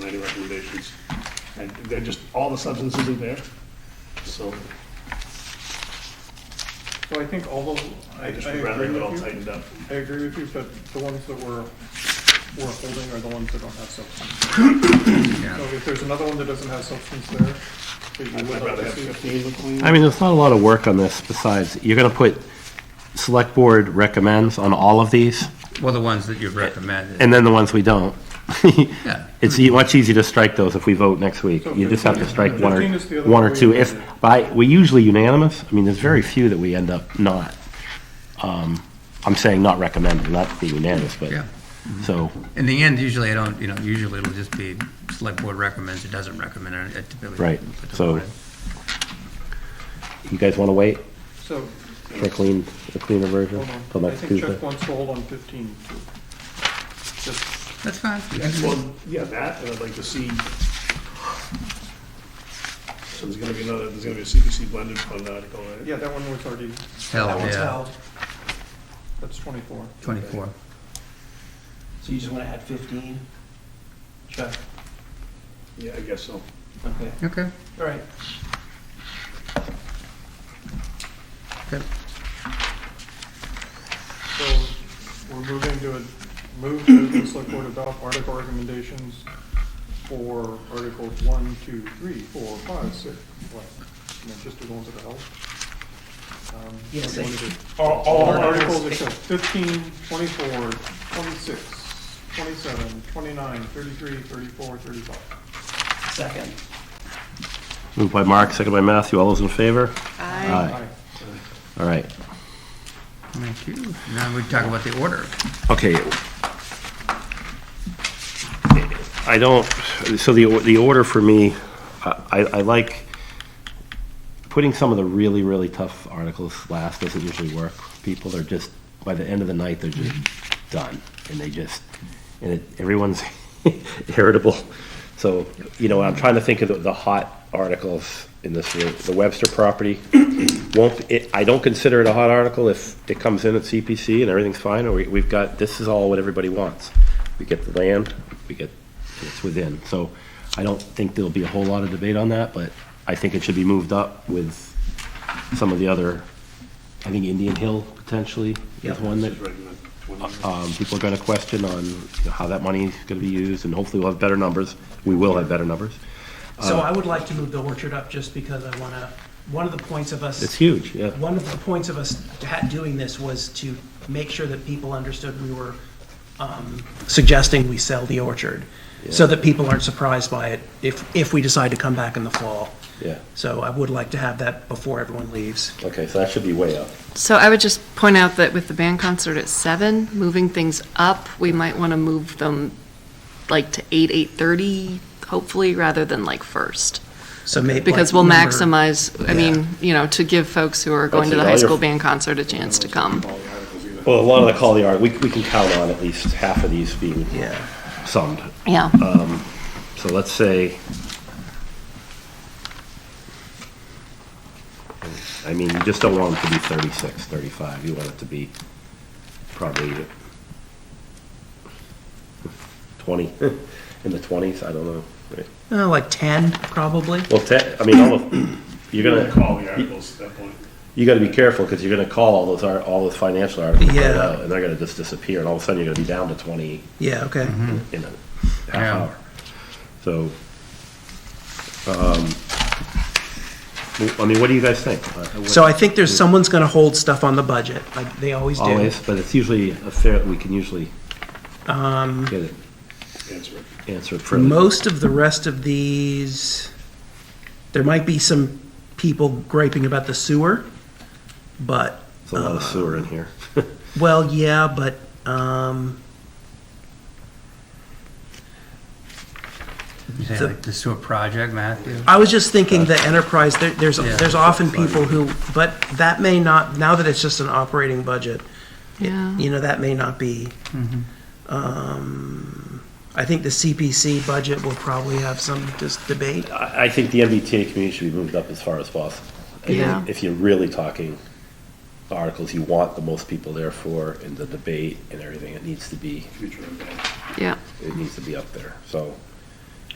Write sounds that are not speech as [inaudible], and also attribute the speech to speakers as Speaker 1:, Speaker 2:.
Speaker 1: regulations. And they're just, all the substances are there, so
Speaker 2: So I think all of, I I
Speaker 1: I just would rather
Speaker 2: agree
Speaker 1: have it all
Speaker 2: with you.
Speaker 1: tightened up.
Speaker 2: I agree with you, but the ones that we're, we're holding are the ones that don't have substance. So if there's another one that doesn't have substance there, that you
Speaker 1: I'd
Speaker 2: would like
Speaker 1: rather
Speaker 2: to
Speaker 1: have
Speaker 2: see.
Speaker 1: fifteen look clean.
Speaker 3: I mean, there's not a lot of work on this besides, you're gonna put select board recommends on all of these,
Speaker 4: Well, the ones that you've recommended.
Speaker 3: and then the ones we don't.
Speaker 4: Yeah.
Speaker 3: [laughs] It's e- much easier to strike those if we vote next week. You just have to strike one or,
Speaker 2: 15 is the other
Speaker 3: one or
Speaker 2: way
Speaker 3: two.
Speaker 2: we
Speaker 3: If,
Speaker 2: voted.
Speaker 3: by, we usually unanimous, I mean, there's very few that we end up not. Um, I'm saying not recommending, not be unanimous, but,
Speaker 4: Yeah.
Speaker 3: so,
Speaker 4: In the end, usually I don't, you know, usually it'll just be select board recommends, it doesn't recommend, and it typically.
Speaker 3: right,
Speaker 4: put the
Speaker 3: so.
Speaker 4: board in.
Speaker 3: You guys wanna wait
Speaker 2: So,
Speaker 3: for a clean, a cleaner version
Speaker 2: hold on,
Speaker 3: till
Speaker 2: I
Speaker 3: next
Speaker 2: think Chuck
Speaker 3: Tuesday?
Speaker 2: wants to hold on fifteen too. Just,
Speaker 4: That's fine.
Speaker 1: Well, yeah, that, and I'd like to see, so there's gonna be another, there's gonna be a CPC blended fund article, right?
Speaker 2: yeah, that one was already,
Speaker 4: Hell, yeah,
Speaker 2: that's twenty-four.
Speaker 4: twenty-four.
Speaker 5: So you just want to add 15? Chuck,
Speaker 1: Yeah, I guess so.
Speaker 5: okay,
Speaker 4: Okay.
Speaker 5: all right.
Speaker 4: Okay.
Speaker 2: So we're moving to, a- move to the select board adopt article recommendations for articles one, two, three, four, five, six, what? And then just the ones that are held. Um,
Speaker 5: Yes,
Speaker 2: what do you wanna do?
Speaker 1: All,
Speaker 2: All articles except 15, 24, 26, 27, 29, 33, 34, 35.
Speaker 5: Second.
Speaker 3: Moved by Mark, second by Matthew. All those in favor?
Speaker 6: Aye.
Speaker 3: Aye. All right.
Speaker 4: Thank you. Now we talk about the order.
Speaker 3: Okay. I don't, so the, the order for me, I, I like, putting some of the really, really tough articles last doesn't usually work. People are just, by the end of the night, they're just done, and they just, and it, everyone's [laughs] irritable. So, you know, I'm trying to think of the, the hot articles in this, room. the Webster property won't, it, I don't consider it a hot article if it comes in at CPC and everything's fine, or we, we've got, this is all what everybody wants. We get the land, we get, it's within, so I don't think there'll be a whole lot of debate on that, but I think it should be moved up with some of the other, I think Indian Hill potentially is one that
Speaker 1: It's right in the 20.
Speaker 3: um, people are going to question on you know, how that money is going to be used, and hopefully we'll have better numbers. We will have better numbers.
Speaker 5: So I would like to move the orchard up just because I want to, one of the points of
Speaker 3: It's
Speaker 5: us,
Speaker 3: huge, yeah.
Speaker 5: one of the points of us ha- doing this was to make sure that people understood we were um, suggesting we sell the orchard, so that people aren't surprised by it if, if we decide to come back in the fall.
Speaker 3: Yeah,
Speaker 5: So I would like to have that before everyone leaves.
Speaker 3: okay, so that should be way up.
Speaker 6: So I would just point out that with the band concert at seven, moving things up, we might want to move them like to eight, eight-thirty, hopefully, rather than like first.
Speaker 5: So maybe.
Speaker 6: Because we'll maximize, I mean, you know, to give folks who are going
Speaker 3: Okay,
Speaker 6: to the
Speaker 3: all
Speaker 6: high
Speaker 3: your-
Speaker 6: school band concert a chance to come.
Speaker 3: Well, a lot of the call the art, we, we can count on at least half of these being
Speaker 5: Yeah.
Speaker 3: summed.
Speaker 6: Yeah.
Speaker 3: So let's say, I mean, you just don't want it to be 36, 35. You want it to be probably 20, [laughs] in the 20s, I don't know. right?
Speaker 5: Uh, Like 10, probably.
Speaker 3: Well, te- I mean, all of, you're
Speaker 1: You're gonna
Speaker 3: gonna,
Speaker 1: call the articles at that point.
Speaker 3: you gotta be careful, because you're gonna call all those, ar- all those financial articles right
Speaker 5: Yeah.
Speaker 3: out, and they're gonna just disappear, and all of a sudden, you're gonna be down to 20
Speaker 5: Yeah, okay.
Speaker 3: in a half
Speaker 4: Yeah.
Speaker 3: hour. So, um, w- I mean, what do you guys think? Uh, what-
Speaker 5: So I think there's, someone's going to hold stuff on the budget, like they always do.
Speaker 3: Always, but it's usually a fair, we can usually get it
Speaker 1: Answer it.
Speaker 3: answered
Speaker 5: For
Speaker 3: fairly.
Speaker 5: most of the rest of these, there might be some people griping about the sewer, but,
Speaker 3: There's a lot of sewer in here. [laughs]
Speaker 5: well, yeah, but, um,
Speaker 4: You say
Speaker 5: The-
Speaker 4: like the sewer project, Matthew?
Speaker 5: I was just thinking the enterprise, there, there's,
Speaker 4: Yeah.
Speaker 5: there's often people who, but that may not, now that it's just an operating budget,
Speaker 6: Yeah.
Speaker 5: you know, that may not be. Um, I think the CPC budget will probably have some just debate.
Speaker 3: I, I think the MBTA community should be moved up as far as possible. And
Speaker 6: Yeah.
Speaker 3: If you're really talking articles you want the most people there for in the debate and everything, it needs to be,
Speaker 1: Future impact.
Speaker 6: Yeah.
Speaker 3: it needs to be up there, so.